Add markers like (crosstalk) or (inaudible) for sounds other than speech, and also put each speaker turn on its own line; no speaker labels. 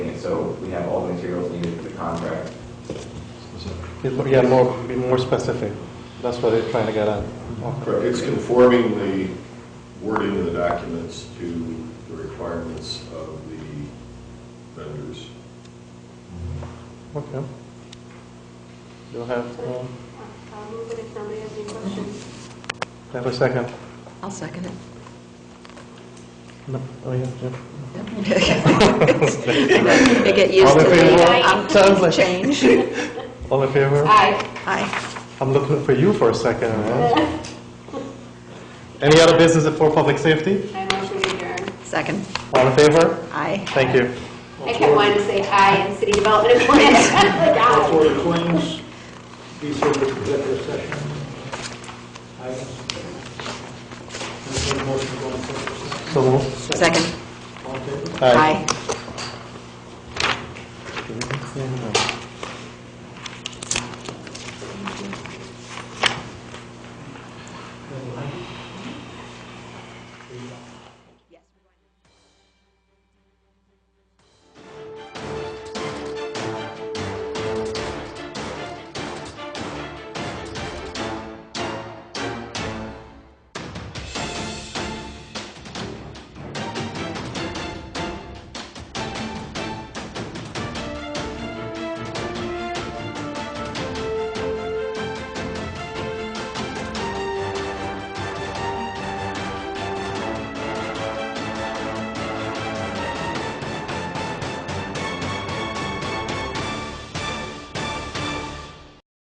contract.
It- Yeah, more, be more specific. That's what they're trying to get at.
Correct, it's conforming the wording of the documents to the requirements of the vendors.
Okay. You'll have, uh,
I'll move it if nobody has any questions.
have a second.
I'll second
(laughs)
it. (laughs)
No, oh, yeah, yeah.
I get used
All
to
in favor? Sounds
the um,
like-
change.
All in favor?
Aye.
(laughs) Aye.
I'm looking for you for a second. right? Any other business for public safety?
I motion to adjourn.
Second.
All in favor?
Aye.
Thank you.
I kept wanting to say aye in city development (laughs) and finance. Like, aye.
For the claims, these are the executive session items. Entertained motion to go into executive session.
So uh, moved.
Second.
All in favor?
Aye.
Aye.